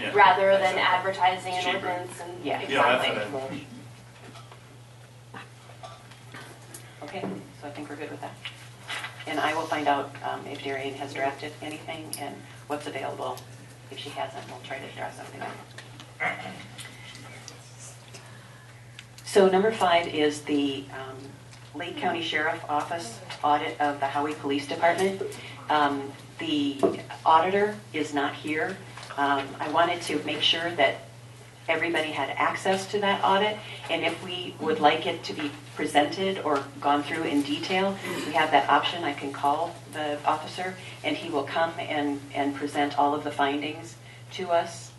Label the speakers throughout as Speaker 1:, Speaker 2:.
Speaker 1: Yeah.
Speaker 2: rather than
Speaker 1: Exactly.
Speaker 2: advertising
Speaker 1: It's
Speaker 2: an
Speaker 1: cheaper.
Speaker 2: ordinance and,
Speaker 3: Yeah.
Speaker 1: Yeah, that's
Speaker 2: exactly.
Speaker 1: what I-
Speaker 3: Okay, so I think we're good with that. And I will find out um, if Darian has drafted anything and what's available. If she hasn't, we'll try to draft something up. So number five is the um, Lake County Sheriff Office audit of the Howie Police Department. Um, The auditor is not here. Um, I wanted to make sure that everybody had access to that audit, and if we would like it to be presented or gone through in detail, we have that option. I can call the officer, and he will come and, and present all of the findings to us.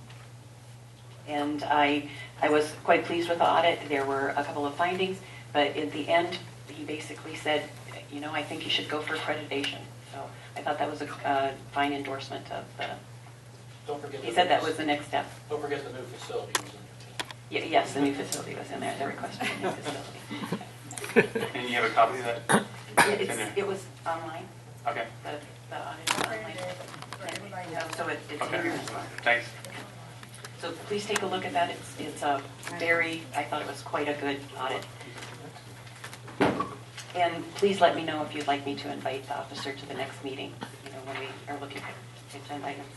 Speaker 3: And I, I was quite pleased with the audit. There were a couple of findings, but at the end, he basically said, you know, I think you should go for accreditation. So I thought that was a uh, fine endorsement of the,
Speaker 4: Don't forget.
Speaker 3: he
Speaker 4: the
Speaker 3: said that
Speaker 4: new-
Speaker 3: was the next step.
Speaker 4: Don't forget the new facility was in there.
Speaker 3: Ye- Yes, the new facility was in there, the request for the new facility.
Speaker 5: And you have a copy of that?
Speaker 3: It- it's- It was online,
Speaker 5: Okay.
Speaker 3: the the audit was online. So it- it's in
Speaker 5: Okay.
Speaker 3: there as well.
Speaker 5: Thanks.
Speaker 3: So please take a look at that. It's, it's a very, I thought it was quite a good audit. And please let me know if you'd like me to invite the officer to the next meeting, you know, when we are looking at agenda items.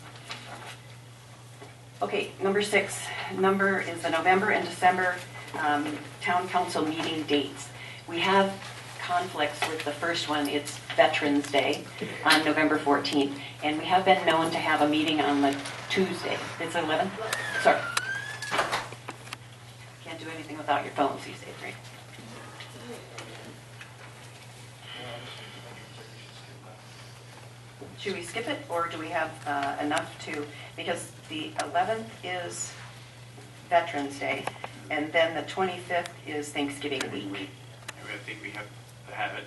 Speaker 3: Okay, number six, number is the November and December um, town council meeting dates. We have conflicts with the first one, it's Veterans Day on November 14th, and we have been known to have a meeting on the Tuesday. It's 11? Sorry. Can't do anything without your phones these days, right? Should we skip it, or do we have uh, enough to, because the 11th is Veterans Day, and then the 25th is Thanksgiving
Speaker 5: I mean,
Speaker 3: week.
Speaker 5: we- I think we have to have it.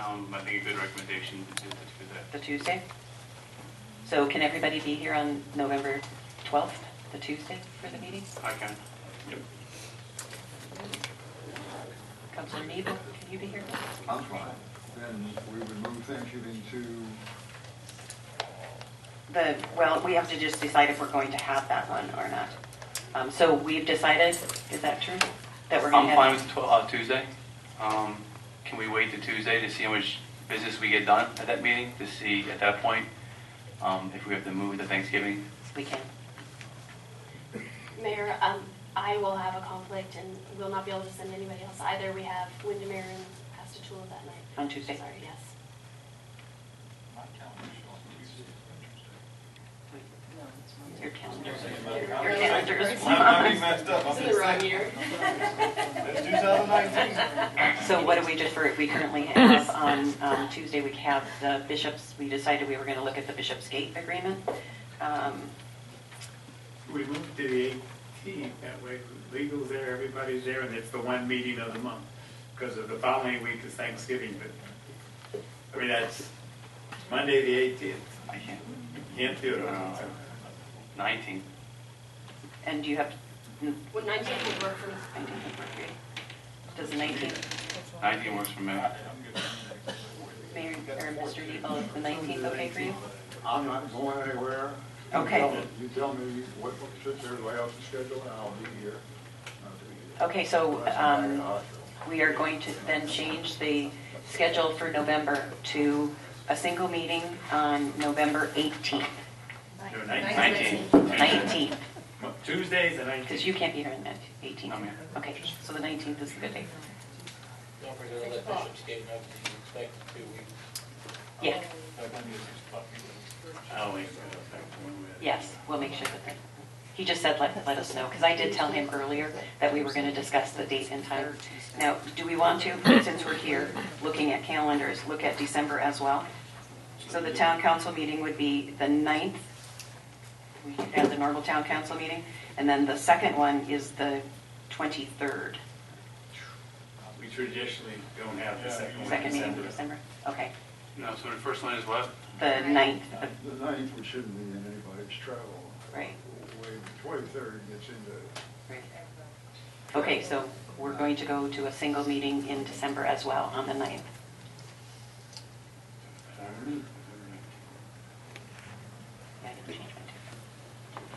Speaker 5: Um, I think a good recommendation is to do
Speaker 3: The Tuesday? So can everybody be here on November 12th, the Tuesday, for the meeting?
Speaker 5: that. I can. Yep.
Speaker 3: Councilor Mabel, can you be here?
Speaker 6: I'm fine. Then we would move Thanksgiving to,
Speaker 3: The, well, we have to just decide if we're going to have that one or not. Um, So we've decided, is that true? That we're going to
Speaker 5: I'm
Speaker 3: have?
Speaker 5: fine with tw- uh, Tuesday. Um, Can we wait to Tuesday to see how much business we get done at that meeting? To see at that point, um, if we have to move to Thanksgiving?
Speaker 3: We can.
Speaker 2: Mayor, um, I will have a conflict and will not be able to send anybody else either. We have Windermere and Pastatula that night.
Speaker 3: On Tuesday.
Speaker 2: Sorry, yes.
Speaker 4: My calendar's on Tuesday.
Speaker 3: Your calendar.
Speaker 4: Your
Speaker 3: Your calendar is
Speaker 7: I'm
Speaker 3: wrong.
Speaker 7: messed up. I'm
Speaker 2: It's in the wrong year.
Speaker 7: It's 2019.
Speaker 3: So what do we defer, we currently have, on um, Tuesday, we have the bishops, we decided we were going to look at the Bishop's Gate Agreement. Um,
Speaker 8: We moved to the 18th, that way legal's there, everybody's there, and it's the one meeting of the month, because of the following week is Thanksgiving, but, I mean, that's Monday, the 18th,
Speaker 5: I can't.
Speaker 8: can't do it on
Speaker 5: Uh, 19.
Speaker 3: And do you have, mm,
Speaker 2: Would 19 would work for me.
Speaker 3: 19th work for you? Does the 19th,
Speaker 5: 19 works for me.
Speaker 3: Mayor, or Mr. Depot, is the 19th okay for you?
Speaker 6: I'm not going anywhere. You
Speaker 3: Okay.
Speaker 6: tell me- You tell me what, what sits there, lay out the schedule, and I'll be here. I'll be here.
Speaker 3: Okay, so
Speaker 6: Unless I'm back in the
Speaker 3: um,
Speaker 6: hospital.
Speaker 3: we are going to then change the schedule for November to a single meeting on November 18th,
Speaker 8: No,
Speaker 5: 19.
Speaker 3: 19th.
Speaker 8: Mon- Tuesday's the 19th.
Speaker 3: Because you can't be here on the 18th.
Speaker 5: I'm here.
Speaker 3: Okay, so the 19th is the good day.
Speaker 4: Don't forget to let Bishop's Gate know that you expect it two weeks.
Speaker 3: Yeah,
Speaker 4: Oh,
Speaker 8: I'll wait for that one with-
Speaker 3: yes, we'll make sure that, that- he just said let, let us know, because I did tell him earlier that we were going to discuss the date and time. Now, do we want to, since we're here, looking at calendars, look at December as well? So the town council meeting would be the 9th. We have the normal town council meeting, and then the second one is the 23rd,
Speaker 8: We traditionally don't have the second one in
Speaker 3: second meeting in
Speaker 8: December.
Speaker 3: December. Okay,
Speaker 5: No, so the first one is what?
Speaker 3: the 9th, the
Speaker 6: The ninth, we shouldn't be in anybody's travel.
Speaker 3: Right.
Speaker 6: Way, twenty-third gets into
Speaker 3: Okay, so we're going to go to a single meeting in December as well, on the 9th.